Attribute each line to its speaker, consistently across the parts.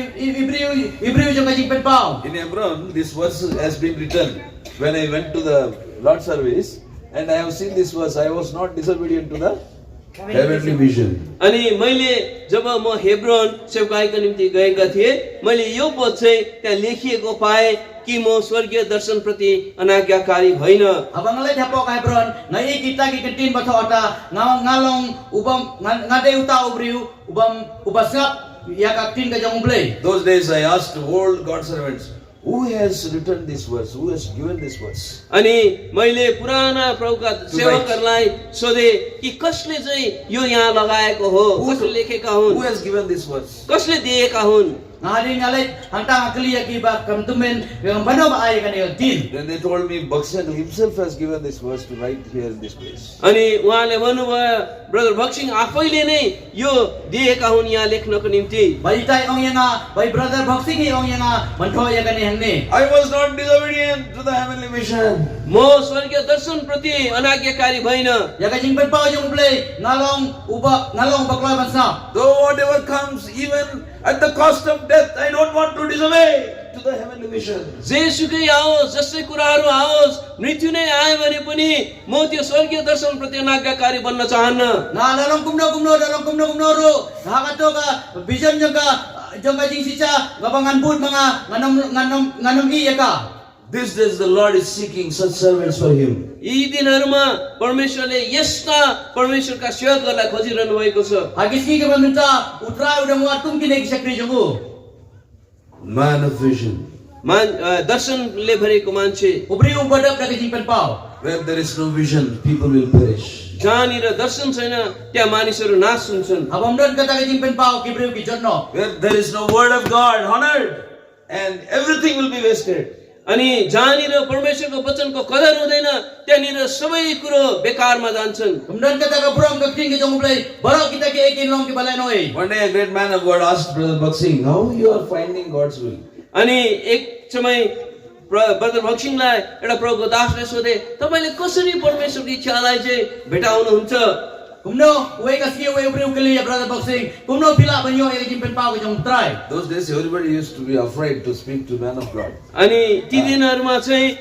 Speaker 1: Hebrew, Hebrew yung kajing penpaw.
Speaker 2: In Hebron, this verse has been written. When I went to the Lord service, and I have seen this verse, I was not disobedient to the heavenly vision.
Speaker 3: अनि मैले जब म Hebron सेवकाईको निम्ति गएका थिएँ मैले यो पद चाहिँ त्यहाँ लेखिएको पाएँ कि म स्वर्गीय दर्शनप्रति अनाज्ञाकारी होइन
Speaker 1: Abang lain hapo ka Hebron, ngai kita ki kentin bato ata ngalong ngalong ubam ngan- ngade uta ubriu ubam ubasngap ya ka tin ka jang blay.
Speaker 2: Those days I asked all God servants, who has written this verse? Who has given this verse?
Speaker 3: अनि मैले पुराना प्रभुका सेवकहरूलाई सोधेँ कि कसले चाहिँ यो यहाँ लगाएको हो कसले लेखेका हुन्
Speaker 2: Who has given this verse?
Speaker 3: कसले दिएका हुन्
Speaker 1: Ngadi ngalit hanta ngakli ya ki ba kamtumen yang bano ba ay kan tin.
Speaker 2: Then they told me Bhakshan himself has given this verse to write here in this place.
Speaker 3: अनि उहाँले भन्नुभयो brother भक्सिङ आफैले नै यो दिएका हुन् यहाँ लेख्नको निम्ति
Speaker 1: Balita ong yang nga, bay brother boxing ong yang nga, manto ya kan yang ni.
Speaker 2: I was not disobedient to the heavenly vision.
Speaker 3: म स्वर्गीय दर्शनप्रति अनाज्ञाकारी भइन
Speaker 1: Ya ka jing penpaw jang blay ngalong uba ngalong bakla bansap.
Speaker 2: Though whatever comes, even at the cost of death, I don't want to disobey to the heavenly vision.
Speaker 3: जेसुकै आओस् जसै कुराहरू आओस् मृत्यु नै आयो भने पनि म त्यो स्वर्गीय दर्शनप्रति अनाज्ञाकारी बन्न चाहन्न
Speaker 1: Na dalam kumno kumno dalam kumno kumno ro. Hakato ka vision jang ka jang ka jing sicha gabangan put mga nganom nganom nganom iya ka.
Speaker 2: These days the Lord is seeking such servants for him.
Speaker 3: यी दिनहरूमा परमेश्वरले यस्ता परमेश्वरका सेवकहरूलाई खोजिरहनु भएको छ
Speaker 1: Agis ki ka pamunta utra udah mo atum kini kisah krijongu.
Speaker 2: Man of vision.
Speaker 3: मान अ, दर्शनले भरिएको मान्छे
Speaker 1: Ubri ubadap na kajing penpaw.
Speaker 2: Where there is no vision, people will perish.
Speaker 3: जहाँनिर दर्शन छैन त्यहाँ मानिसहरू नाश हुन्छन्
Speaker 1: Abang don kata kajing penpaw kibriu kijonno.
Speaker 2: Where there is no word of God honored, and everything will be wasted.
Speaker 3: अनि जहाँनिर परमेश्वरको वचनको कदर हुँदैन त्यहाँनिर सबै कुरो बेकारमा जान्छन्
Speaker 1: Kemudian kata ka burang ka king kijong ublay. Barok kita ki ekin long ki balai noi.
Speaker 2: One day a great man of God asked Brother Baksing, how you are finding God's will?
Speaker 3: अनि एक समय प्र- brother भक्सिङलाई एउटा प्रभुको दासले सोधे तपाईँले कसरी परमेश्वरको इच्छालाई चाहिँ भेटाउनुहुन्छ
Speaker 1: Kumno uwe ka siya uwe ubriu kili ya brother boxing. Kumno bila banyo ya kajing penpaw kijong try.
Speaker 2: Those days everybody used to be afraid to speak to man of God.
Speaker 3: अनि ती दिनहरूमा चाहिँ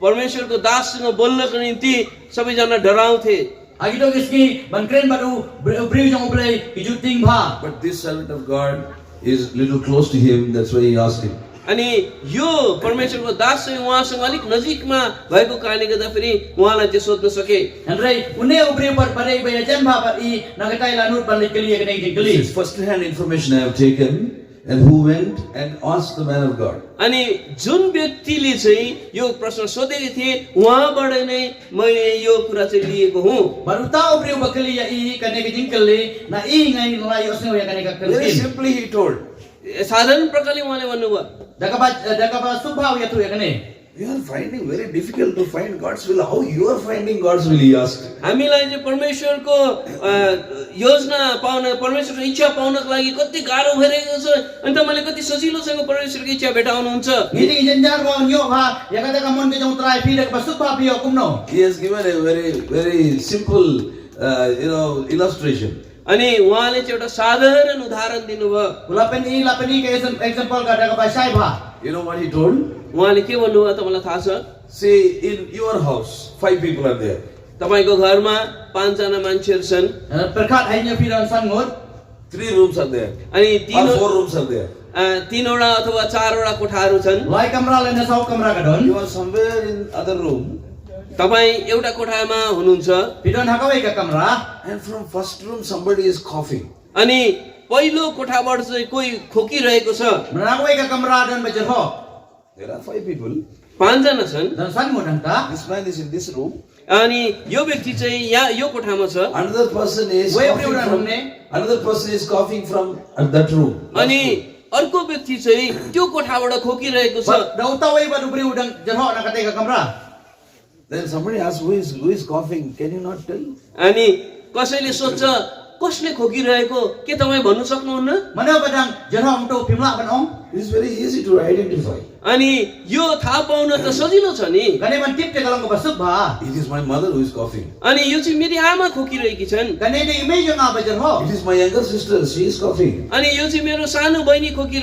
Speaker 3: परमेश्वरको दाससँग बोल्नको निम्ति सबैजना डराउँथे
Speaker 1: Agito kiski bankren baru ubriu jong ublay kijuting ba.
Speaker 2: But this servant of God is little close to him, that's why he asked him.
Speaker 3: अनि यो परमेश्वरको दास चाहिँ उहाँसँग अलिक नजिकमा भएको कारणले गर्दाखेरि उहाँलाई त्यो सोध्न सके
Speaker 1: Andrei, une ubri par pare iba ya jan ba par i nagatai lanur pan lekeli ya kenai
Speaker 2: This is
Speaker 1: kekeli.
Speaker 2: first hand information I have taken, and who went and asked the man of God.
Speaker 3: अनि जुन व्यक्तिले चाहिँ यो प्रश्न सोधेको थिए उहाँबाट नै मैले यो कुरा चाहिँ लिएको हुँ
Speaker 1: Baru tahu ubri uba keli ya i kenai kejing keli, na i ngai nulai osno ya kenai
Speaker 2: Very
Speaker 1: kekeli.
Speaker 2: simply he told,
Speaker 3: साधारण प्रकारले उहाँले भन्नुभयो
Speaker 1: Daka ba eh, daka ba subhau ya tu ya kenai.
Speaker 2: You are finding very difficult to find God's will. How you are finding God's will, he asked.
Speaker 3: हामीलाई चाहिँ परमेश्वरको a, योजना पाउन परमेश्वरको इच्छा पाउनको लागि कति गाह्रो भइरहेको छ अनि तपाईँले कति सजिलोसँग परमेश्वरको इच्छा भेटाउनुहुन्छ
Speaker 1: Ngiti ijen jar ba nyo ha, ya kata ka mon kejong trai pi daka ba subha pi ya kumno.
Speaker 2: He has given a very, very simple, uh, you know, illustration.
Speaker 3: अनि उहाँले चाहिँ एउटा साधारण उदाहरण दिनुभयो
Speaker 1: Ulapen i lapen i ke exam- example ka daka ba ha. syai ba.
Speaker 2: You know what he told?
Speaker 3: उहाँले के भन्नुभयो तपाईँलाई थाहा छ
Speaker 2: See, in your house, five people are there.
Speaker 3: तपाईँको घरमा पाँचजना मान्छेहरू छन्
Speaker 1: Eh, Perkat hai nyo pi dan sangut.
Speaker 2: Three rooms are there.
Speaker 3: अनि
Speaker 2: Or
Speaker 3: तिन
Speaker 2: four rooms are there.
Speaker 3: अ, तिनवटा अथवा चारवटा कोठाहरू छन्
Speaker 1: Lai kamra le na sau kamra ka don.
Speaker 2: You are somewhere in other room,
Speaker 3: तपाईँ एउटा कोठामा हुनुहुन्छ
Speaker 1: Pi don hakawai ka kamra.
Speaker 2: and from first room somebody is coughing.
Speaker 3: अनि पहिलो कोठाबाट चाहिँ कोही खोकिरहेको छ
Speaker 1: Menakawai ka kamra don ba jerhok.
Speaker 2: There are five people.
Speaker 3: पाँचजना छन्
Speaker 1: Dan sangut hanta.
Speaker 2: This man is in this room.
Speaker 3: अनि यो व्यक्ति चाहिँ यहाँ यो कोठामा छ
Speaker 2: Another person is
Speaker 1: Where
Speaker 2: coughing
Speaker 1: everyone
Speaker 2: from.
Speaker 1: room, eh?
Speaker 2: Another person is coughing from uh, that room.
Speaker 3: अनि अर्को व्यक्ति चाहिँ त्यो कोठाबाट खोकिरहेको छ
Speaker 1: Ba- Dah utawai ba dubri udang jerhok nak kata ke kamera.
Speaker 2: Then somebody asks, who is who is coughing? Can you not tell?
Speaker 3: अनि कसैले सोध्छ कसले खोकिरहेको के तपाईँ भन्नु सक्नुहुन्न
Speaker 1: Mana badang jerhok untuk pimlak ban ong.
Speaker 2: It is very easy to identify.
Speaker 3: अनि यो थाहा पाउन त सजिलो छ नि
Speaker 1: Kani man tip te kalang ko basuk ba.
Speaker 2: It is my mother who is coughing.
Speaker 3: अनि यो चाहिँ मेरी आमा खोकिरहेकी छन्
Speaker 1: Kani de image nga ba jerhok.
Speaker 2: It is my younger sister. She is coughing.
Speaker 3: अनि यो चाहिँ मेरो सानो बहिनी खोकि